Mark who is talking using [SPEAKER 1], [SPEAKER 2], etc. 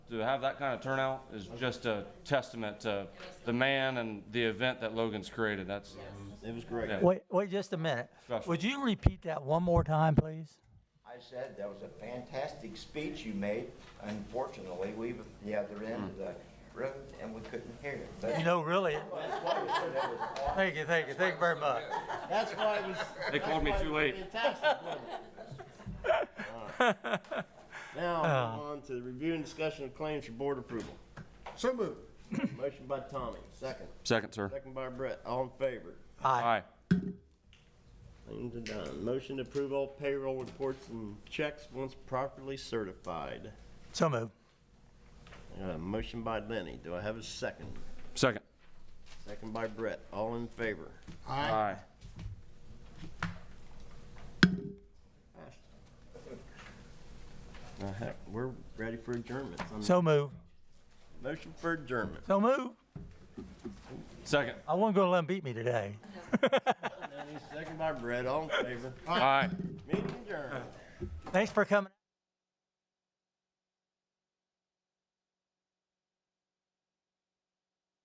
[SPEAKER 1] to have that kind of turnout is just a testament to the man and the event that Logan's created. That's,
[SPEAKER 2] It was great.
[SPEAKER 1] Yeah.
[SPEAKER 3] Wait, wait just a minute.
[SPEAKER 1] Special.
[SPEAKER 3] Would you repeat that one more time, please?
[SPEAKER 2] I said that was a fantastic speech you made. Unfortunately, we were at the other end of the road and we couldn't hear it. But
[SPEAKER 3] You know, really,
[SPEAKER 2] that's why we said that was awesome.
[SPEAKER 3] thank you, thank you, thank you very much.
[SPEAKER 2] That's why it was.
[SPEAKER 1] they called me too late.
[SPEAKER 4] Now,
[SPEAKER 5] Ah.
[SPEAKER 4] on to the review and discussion of claims for board approval.
[SPEAKER 5] So moved.
[SPEAKER 4] Motion by Tommy, second.
[SPEAKER 1] Second, sir.
[SPEAKER 4] Second by Brett, all in favor.
[SPEAKER 3] Aye.
[SPEAKER 1] Aye.
[SPEAKER 4] Claims are done. Motion to approve all payroll reports and checks once properly certified.
[SPEAKER 3] So moved.
[SPEAKER 4] Uh, motion by Lenny, do I have a second?
[SPEAKER 1] Second.
[SPEAKER 4] Second by Brett, all in favor.
[SPEAKER 5] Aye.
[SPEAKER 1] Aye.
[SPEAKER 4] Uh, heck, We're ready for adjournments. I'm-
[SPEAKER 3] So moved.
[SPEAKER 4] Motion for adjournment.
[SPEAKER 3] So moved.
[SPEAKER 1] Second.
[SPEAKER 3] I wasn't going to let him beat me today.
[SPEAKER 4] Lenny, Second by Brett, all in favor.
[SPEAKER 1] Aye.
[SPEAKER 4] Meeting adjourned.
[SPEAKER 3] Thanks for coming.